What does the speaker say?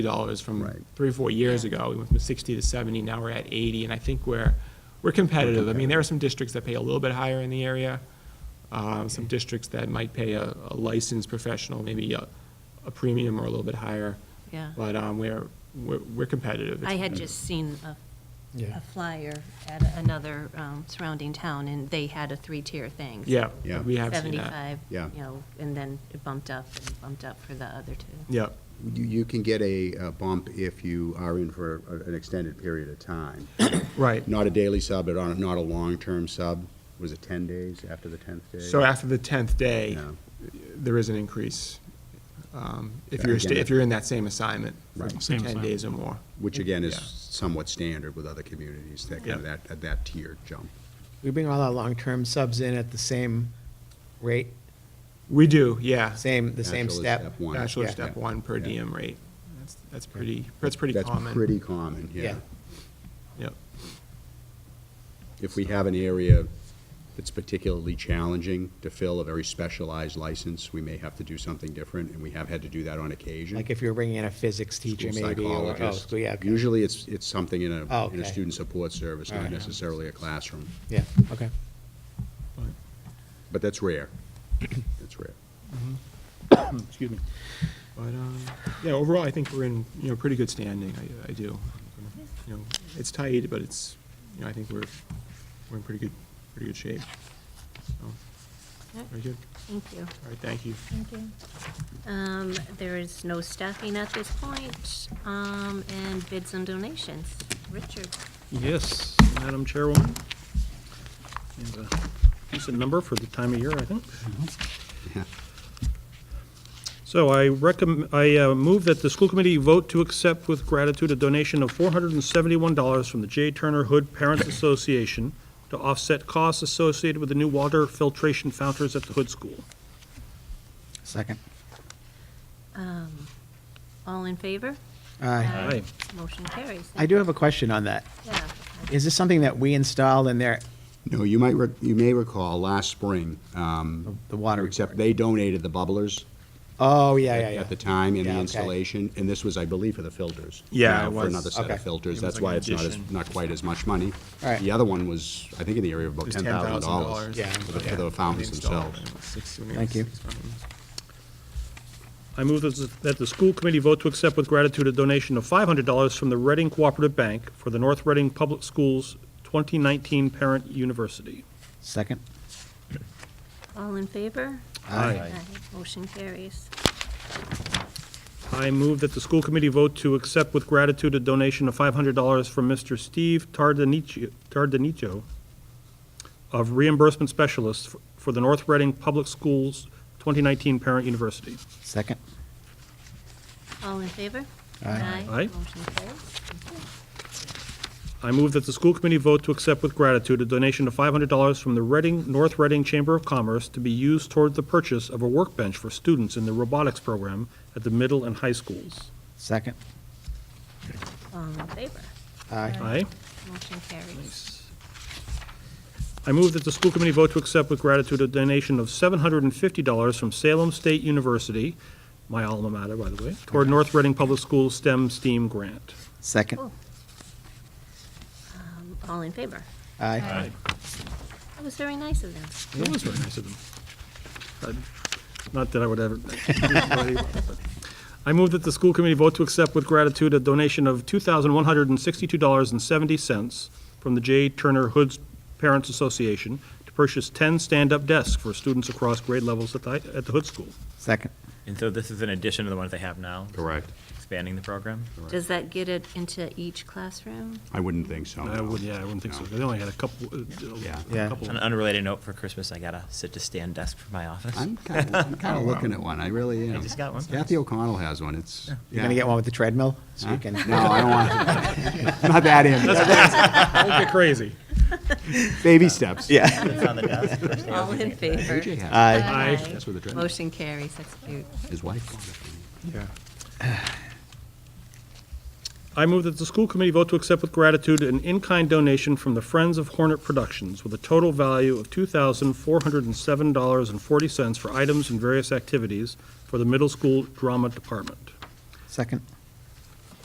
dollars Right. from three, four years ago. We went from sixty to seventy, now we're at eighty, and I think we're, we're competitive. I mean, there are some districts that pay a little bit higher in the area. Um, some districts that might pay a, a licensed professional, maybe a, a premium or a little bit higher. Yeah. But, um, we're, we're, we're competitive. I had just seen a, Yeah. a flyer at another um, surrounding town, and they had a three-tier thing. Yeah, Yeah. we have seen that. Seventy-five, you Yeah. know, and then it bumped up, and bumped up for the other two. Yeah, You, you can get a uh, bump if you are in for a- an extended period of time. right. Not a daily sub, but on, not a long-term sub. Was it 10 days after the 10th day? So after the tenth day, Yeah. there is an increase, um, if Yeah, you're, again, sta- that- if you're in that same assignment for Right. for Same ten assignment. days or more. Which again is Yeah. somewhat standard with other communities, that kind of Yeah. that, at that tier jump. We bring all our long-term subs in at the same rate, We do, yeah. same, the same Bachelor step. one. Bachelor Yeah. step one per Yeah. diem rate. That's, that's pretty, that's pretty common. That's pretty common, yeah. Yeah. Yep, If we have an area that's particularly challenging to fill a very specialized license, we may have to do something different, and we have had to do that on occasion. Like if you were bringing in a physics teacher School maybe, or, oh, psychologist. school, yeah, okay. Usually, it's, it's something in a, Oh, in a okay. student support service, All not right. necessarily a classroom. yeah, okay. But that's rare. That's rare. Excuse me. but, um, yeah, overall, I think we're in, you know, pretty good standing, I, I do. You know, it's tight, but it's, you know, I think we're, we're in pretty good, pretty good shape. So, very good, Thank you. all right, thank you. Um, There is no staffing at this point, um, and bids and donations. Richard? Yes, Madam Chairwoman. And a decent number for the time of year, I think. So I recommend, I uh, move that the school committee vote to accept with gratitude a donation of $471 from the J. Turner Hood Parents Association to offset costs associated with the new water filtration fountains at the Hood School. Second. um, All in favor? I Aye. Motion carries. Uh, do have a question on that. Yeah. Is this something that we installed in there? No, you might, rec- you may recall, last spring, um, The water except report? they donated the bubblers Oh, yeah, yeah, yeah. at the time in Yeah, the okay. installation, and this was, I believe, for the filters. Yeah, Uh, it For was. another set of Okay. filters, It was that's like why an it's not, as addition. not quite as much money. All right. The other one was, I think, in the area of about It was $10,000. Yeah. For the- Yeah. for the fountains Installed, themselves. it was six- when it Thank was you. six fountains. I move that that the school committee vote to accept with gratitude a donation of $500 from the Reading Cooperative Bank for the North Reading Public Schools 2019 Parent University. Second. All in favor? Aye. Motion carries. I move that the school committee vote to accept with gratitude a donation of $500 from Mr. Steve Tardanicho- Tardanicho of reimbursement specialist f- for the North Reading Public Schools 2019 Parent University. Second. All in favor? Aye. Aye. Motion carries. I move that the school committee vote to accept with gratitude a donation of $500 from the Reading, North Reading Chamber of Commerce to be used toward the purchase of a workbench for students in the robotics program at the middle and high schools. Second. All in favor? Aye. Aye? Motion carries. I move that the school committee vote to accept with gratitude a donation of $750 from Salem State University, my alma mater, by the way, toward North Reading Public Schools STEM STEAM grant. Second. Cool. Um, All in favor? Aye. That was very nice of them. That was very nice of them. I- Not that I would ever. but- I move that the school committee vote to accept with gratitude a donation of $2,162.70 from the J. Turner Hoods Parents Association to purchase 10 stand-up desks for students across grade levels at the, at the Hood School. Second. And so this is an addition to the ones they have now? Correct. Expanding the program? Does that get it into each classroom? I wldn't think so. I no. would, yeah, I wouldn't think so. No. They only had a couple, uh, Yeah. a Yeah. couple. On an unrelated note, for Christmas, I got a sit-to-stand desk for my office. I'm kind of, I'm kind of looking at one, I really am. Oh, just got one. Kathy O'Connell has one, it's. You're gonna get one with the treadmill? So you can. No, I don't want, not that in, Don't get crazy. baby steps. Yeah. It's on the desk. All in favor? AJ has Aye. Aye. That's where the treadmill- Motion carries, that's cute. one. his wife. bought it for me. Yeah. I move that the school committee vote to accept with gratitude an in-kind donation from the Friends of Hornet Productions with a total value of $2,407.40 for items and various activities for the middle school drama department. Second.